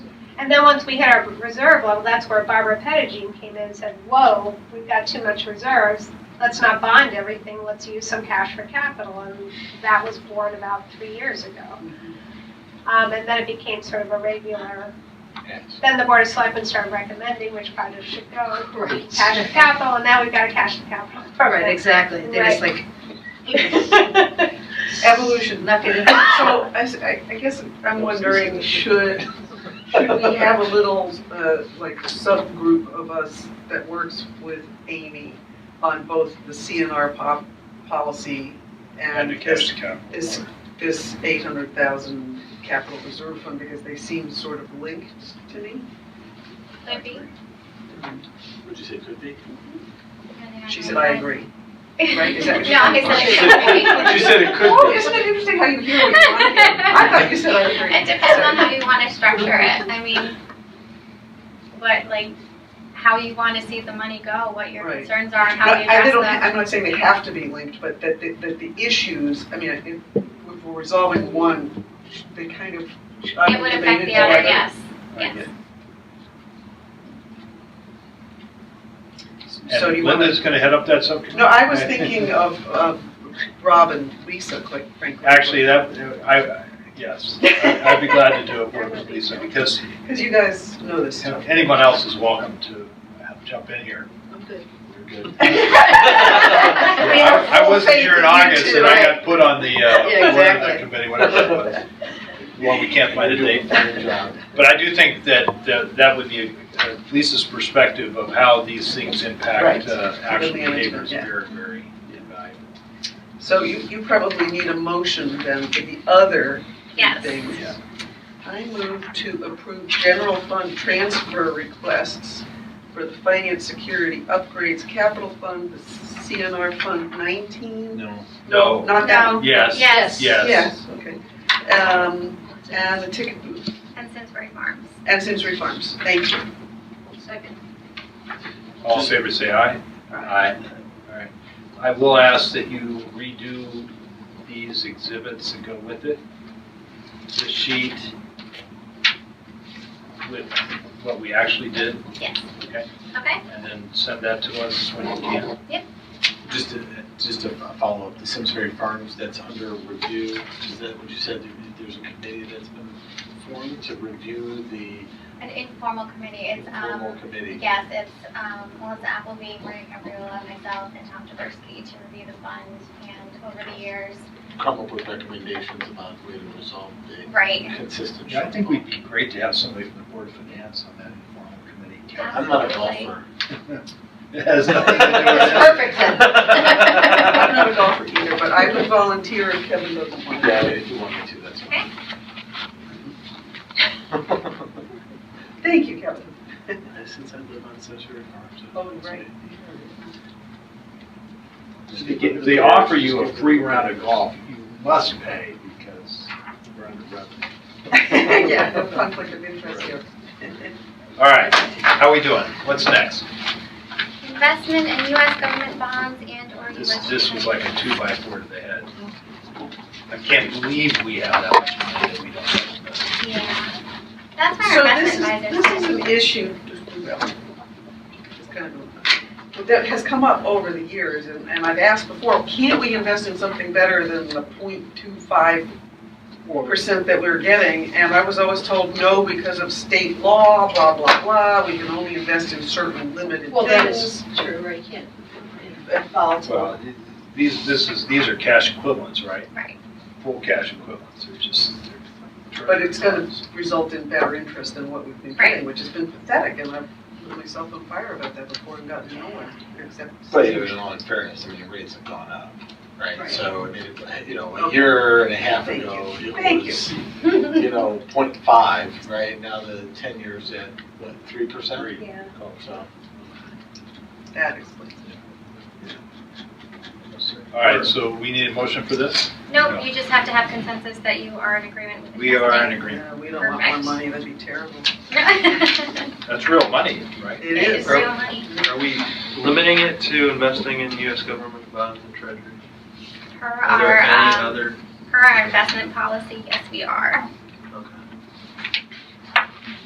then once we hit our reserve level, that's where Barbara Pettigene came in and said, whoa, we've got too much reserves. Let's not bond everything, let's use some cash for capital, and that was born about three years ago. Um, and then it became sort of a regular, Yes. then the Board of Selectmen started recommending which projects should go, Right. cash to capital, and now we've got a cash to capital Right, program. exactly. They're just like evolution, not getting. So I, s- I- I guess I'm wondering, should, should we have a little, uh, like subgroup of us that works with Amy on both the CNR pop, policy And Um, and the this, cash account. this, this eight hundred thousand capital reserve fund, because they seem sort of linked to me? Could be. Would you say could be? depending on She how said, you I like- agree. Right, is that- No, he said it could be. You said it could Oh, be. isn't it interesting how you hear what you want to hear? I thought you said I agree. It depends on how you want to structure it. I mean, what, like, how you want to see the money go, what your Right. concerns are, and No, how you I- they address don't, them. I'm not saying they have to be linked, but that, the- that the issues, I mean, if if we're resolving one, they kind of. It would affect the other, yes, yes. So do And you want Linda's gonna head up that to- subcommittee. No, I was thinking of, of Rob and Lisa, quite frankly. Actually, that, I, yes, I- I'd be glad to do it work with Lisa, because Because you guys know this stuff. anyone else is welcome to jump in here. I'm good. You're good. We have I I wasn't full here in faith you August, two, and I right? got put on the, uh, Yeah, board of exactly. the committee, whatever it was. Well, we can't find a date. But I do think that, that that would be uh, Lisa's perspective of how these things impact Right. uh, actual Management, behaviors, yeah. very, very invaluable. So you, you probably need a motion then for the other Yes. things. Yeah. I move to approve general fund transfer requests for the finance security upgrades capital fund, the CNR Fund 19. No. Not that one? Yes. Yes. Yes. Yes, okay. Um, And the ticket booth, And Simsbury Farms. and Simsbury Farms, thank you. Second. All in favor, say aye. Aye. All right. I will ask that you redo these exhibits that go with it. The sheet with what we actually did, Okay, and then send that to us when you can. Just to, just to follow up, the Simsbury Farms, that's under review, is that what you said, There- there's a committee that's been formed to review the an informal committee, it's, informal um, committee? yes, it's, um, Melissa Appleby, Maria Capriola, myself, and Tom Jaworski to review the fund, and over the years, Come up with recommendations about way to resolve the right, consistent. Yeah, I think we'd be great to have somebody from the Board of Finance on that informal committee. I'm not a golfer. It has nothing to do with That's it. perfect then. I'm not a golfer either, but I would volunteer if Kevin doesn't want Yeah, to. if you want me to, that's fine. Thank you, Kevin. Since I live on Simsbury Farms. Oh, right. They get- They offer you a free round of golf, you must pay because we're under revenue. Yeah, no conflict of interest here. All right, how are we doing? What's next? investment in U.S. government bonds and/or U.S. This, this was like a two by four to the head. I can't believe we have that much money that we don't have. Yeah, that's my So this investment is, advisor. this is an issue that has come up over the years, and, and I've asked before, can't we invest in something better than the 0.25 percent that we were getting? And I was always told, no, because of state law, blah, blah, blah, we can only invest in certain limited Well, that is things. true, right, you can't. Volatile. Well, these, this is, these are cash equivalents, right? Right. Full cash equivalents, they're just. they're- But it's gonna result in better interest than what we've been getting, which has been pathetic, and I've put myself on fire about that before and gotten nowhere, except. But in all fairness, I mean, rates have gone up, right? Right. So, I mean, it- you know, a Okay. year and a half Thank ago, it Thank you. was, you know, point five, right? Now the ten years at, what, three percent? Yeah. So, That explains it. All right, so we need a motion for this? No, you just have to have consensus that you are in agreement with the We are in testing. agreement. Yeah, we don't want more Perfect. money, that'd be terrible. That's real money, right? It It is. is real money, Are we, Limiting it to investing in US government bonds and treasuries. per Are there our, any um, other, per our investment policy, yes, we are.